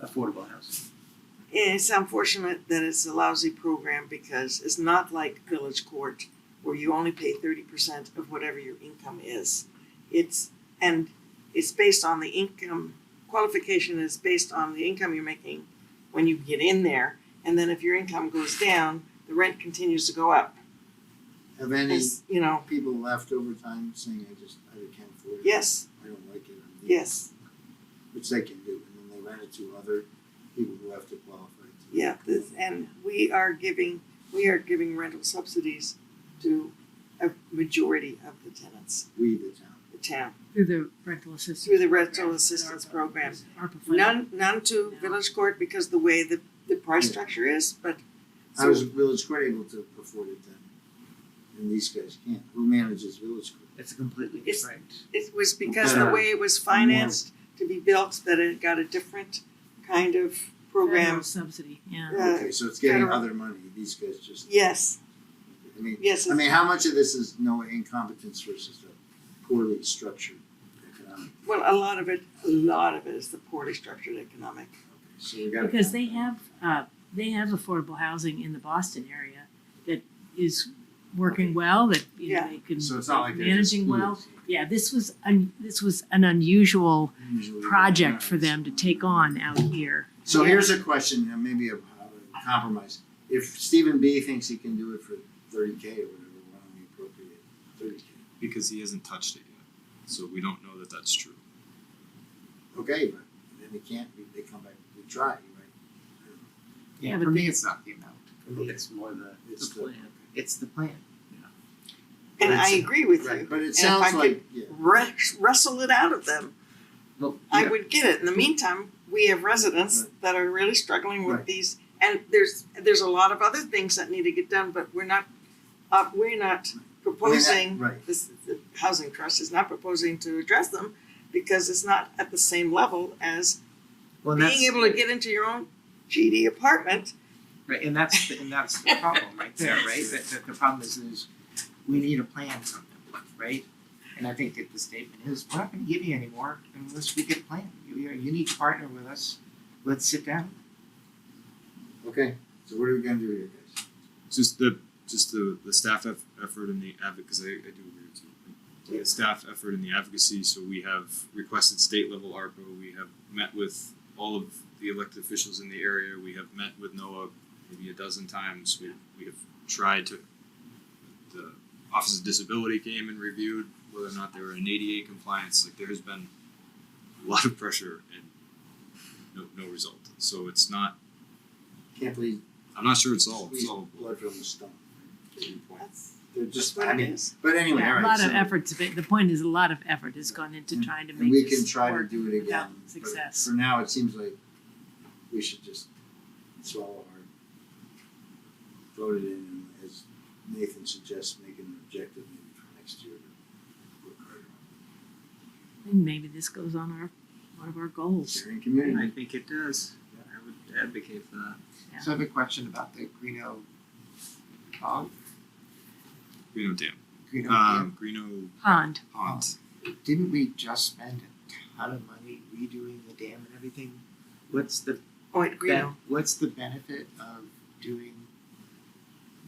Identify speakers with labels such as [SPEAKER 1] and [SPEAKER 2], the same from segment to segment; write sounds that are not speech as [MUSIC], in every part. [SPEAKER 1] affordable housing.
[SPEAKER 2] It's unfortunate that it's a lousy program because it's not like Village Court where you only pay thirty percent of whatever your income is. It's, and it's based on the income, qualification is based on the income you're making when you get in there. And then if your income goes down, the rent continues to go up.
[SPEAKER 3] Have any
[SPEAKER 2] It's, you know,
[SPEAKER 3] people left over time saying, I just, I can't afford it,
[SPEAKER 2] yes,
[SPEAKER 3] I don't like it, I'm leaving,"
[SPEAKER 2] yes,
[SPEAKER 3] Which they can do, and then they rent it to other people who have to qualify to.
[SPEAKER 2] yeah, this, and we are giving, we are giving rental subsidies to a majority of the tenants,
[SPEAKER 3] We, the town.
[SPEAKER 2] the town.
[SPEAKER 4] Through the rental assistance.
[SPEAKER 2] through the rental assistance program.
[SPEAKER 4] ARPA funding.
[SPEAKER 2] None, none to Village Court because the way the, the price
[SPEAKER 3] Yeah.
[SPEAKER 2] structure is, but
[SPEAKER 3] I
[SPEAKER 2] So-
[SPEAKER 3] was Village Court able to afford it then? And these guys can't. Who manages Village Court?
[SPEAKER 1] It's a completely
[SPEAKER 2] It's-
[SPEAKER 1] different.
[SPEAKER 2] it was because the way it was financed to be built that it got a different kind of
[SPEAKER 4] Federal
[SPEAKER 2] program.
[SPEAKER 4] Subsidy, yeah.
[SPEAKER 2] Uh,
[SPEAKER 3] Okay, so it's getting
[SPEAKER 2] federal-
[SPEAKER 3] other money. These guys just,
[SPEAKER 2] Yes,
[SPEAKER 3] I mean,
[SPEAKER 2] yes,
[SPEAKER 3] I
[SPEAKER 2] it's-
[SPEAKER 3] mean, how much of this is no incompetence versus a poorly structured economic?
[SPEAKER 2] well, a lot of it, a lot of it is the poorly structured economic.
[SPEAKER 3] Okay, So we gotta.
[SPEAKER 4] Because they have, uh, they have affordable housing in the Boston area that is working well, that, you know,
[SPEAKER 2] Yeah.
[SPEAKER 4] they can.
[SPEAKER 3] So it's not like they're just
[SPEAKER 4] Managing well,
[SPEAKER 3] fools.
[SPEAKER 4] yeah, this was, un- this was an unusual
[SPEAKER 3] Usually they're
[SPEAKER 4] project
[SPEAKER 3] not.
[SPEAKER 4] for them to take on out here.
[SPEAKER 3] So
[SPEAKER 2] Yeah.
[SPEAKER 3] here's a question, and maybe a, a compromise. If Stephen B thinks he can do it for thirty K or whatever, why don't we appropriate thirty K?
[SPEAKER 5] because he hasn't touched it yet. So we don't know that that's true.
[SPEAKER 3] Okay, but then they can't, we- they come back, we try, right?
[SPEAKER 4] Yeah,
[SPEAKER 1] Yeah,
[SPEAKER 4] but
[SPEAKER 1] for me,
[SPEAKER 4] they-
[SPEAKER 1] it's not the amount. For me, it's more the,
[SPEAKER 3] It's
[SPEAKER 1] the plan. It's the plan.
[SPEAKER 2] And I
[SPEAKER 3] It's-
[SPEAKER 2] agree with
[SPEAKER 3] Right,
[SPEAKER 2] you.
[SPEAKER 3] but it
[SPEAKER 2] if I
[SPEAKER 3] sounds
[SPEAKER 2] could-
[SPEAKER 3] like, yeah,
[SPEAKER 2] Wre- Wrestle it out of them.
[SPEAKER 1] Well,
[SPEAKER 2] I
[SPEAKER 1] yeah,
[SPEAKER 2] would get it. In the meantime, we have residents that are really struggling with
[SPEAKER 3] Right.
[SPEAKER 2] these, and there's there's a lot of other things that need to get done, but we're not uh, we're not
[SPEAKER 3] I mean, that-
[SPEAKER 2] proposing.
[SPEAKER 3] right,
[SPEAKER 2] This the housing trust is not proposing to address them because it's not at the same level as
[SPEAKER 1] well, and
[SPEAKER 2] being
[SPEAKER 1] that's,
[SPEAKER 2] able to get into your own GD apartment.
[SPEAKER 1] right, and that's, the- and that's the problem right there, right? That, that the problem is, is we need a plan from them, right? And I think that the statement is, we're not gonna give you any more unless we get a plan. You, you need to partner with us. Let's sit down.
[SPEAKER 3] okay, so what are we gonna do here, guys?
[SPEAKER 5] Just the just the, the staff eff- effort and the advocacy. I, I do agree with you. The staff effort and the advocacy. So we have requested state level ARPA. We have met with all of the elected officials in the area. We have met with NOAA maybe a dozen times. We we have tried to. The Office of Disability came and reviewed whether or not they were in ADA compliance. Like there has been a lot of pressure and no no result. So it's not.
[SPEAKER 3] Can't believe
[SPEAKER 5] I'm not sure it's all
[SPEAKER 3] we
[SPEAKER 5] solvable.
[SPEAKER 3] blood from the stone. Good point.
[SPEAKER 2] That's,
[SPEAKER 3] They're
[SPEAKER 2] that's
[SPEAKER 3] just,
[SPEAKER 2] what
[SPEAKER 3] I
[SPEAKER 2] it
[SPEAKER 3] mean,
[SPEAKER 2] is.
[SPEAKER 3] but anyway, all
[SPEAKER 4] Yeah,
[SPEAKER 3] right.
[SPEAKER 4] a lot of
[SPEAKER 3] so-
[SPEAKER 4] efforts, but the point is a lot of effort has gone into
[SPEAKER 3] And-
[SPEAKER 4] trying to
[SPEAKER 3] And
[SPEAKER 4] make
[SPEAKER 3] we can
[SPEAKER 4] this
[SPEAKER 3] try to
[SPEAKER 4] work
[SPEAKER 3] do it
[SPEAKER 4] without
[SPEAKER 3] again, but
[SPEAKER 4] success.
[SPEAKER 3] for now, it seems like we should just swallow our vote it in and as Nathan suggests, make an objective maybe for next year to work harder on
[SPEAKER 4] And maybe this goes on our, one of our goals.
[SPEAKER 3] sharing community.
[SPEAKER 6] think it does. I would advocate for that.
[SPEAKER 4] Yeah.
[SPEAKER 6] So I have a question about the Greeno
[SPEAKER 1] uh,
[SPEAKER 6] Bog,
[SPEAKER 5] You know, damn.
[SPEAKER 6] Greeno Dam.
[SPEAKER 5] Um, Greeno
[SPEAKER 4] Pond,
[SPEAKER 5] Pond.
[SPEAKER 6] Didn't we just spend a ton of money redoing the dam and everything? What's the
[SPEAKER 2] Oh, at Greeno.
[SPEAKER 6] ben- what's the benefit of doing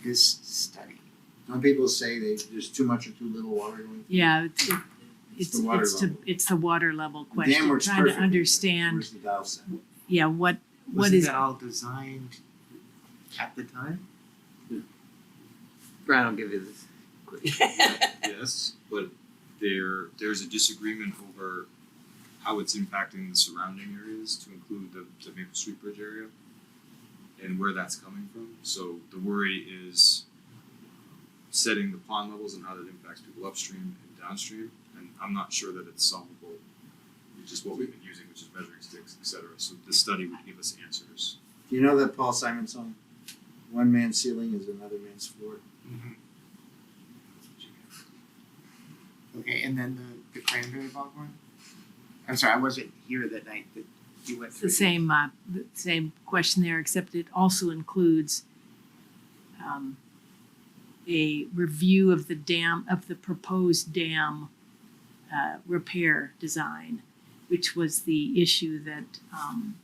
[SPEAKER 6] this study?
[SPEAKER 3] Some people say they, there's too much or too little water going.
[SPEAKER 4] yeah, it's, it-
[SPEAKER 3] It's
[SPEAKER 4] it's,
[SPEAKER 3] the water
[SPEAKER 4] it's to,
[SPEAKER 3] level.
[SPEAKER 4] it's the water level
[SPEAKER 3] The dam
[SPEAKER 4] question,
[SPEAKER 3] works
[SPEAKER 4] trying to
[SPEAKER 3] perfectly, but
[SPEAKER 4] understand,
[SPEAKER 3] Where's the dial set?
[SPEAKER 4] yeah, what, what
[SPEAKER 6] Wasn't
[SPEAKER 4] is,
[SPEAKER 6] that all designed at the time?
[SPEAKER 7] Brian will give you this.
[SPEAKER 2] [LAUGHS]
[SPEAKER 5] yes, but there there's a disagreement over how it's impacting the surrounding areas to include the, the Maple Street Bridge area and where that's coming from. So the worry is setting the pond levels and how that impacts people upstream and downstream. And I'm not sure that it's solvable, which is what we've been using, which is measuring sticks, et cetera. So this study would give us answers.
[SPEAKER 3] Do you know that Paul Simon song? One man's ceiling is another man's floor.
[SPEAKER 4] Mm-hmm.
[SPEAKER 6] Okay, and then the, the cranberry bog one? I'm sorry, I wasn't here that night that you went
[SPEAKER 4] it's
[SPEAKER 6] through.
[SPEAKER 4] the same, uh, the same question there, except it also includes um, a review of the dam, of the proposed dam uh, repair design, which was the issue that um,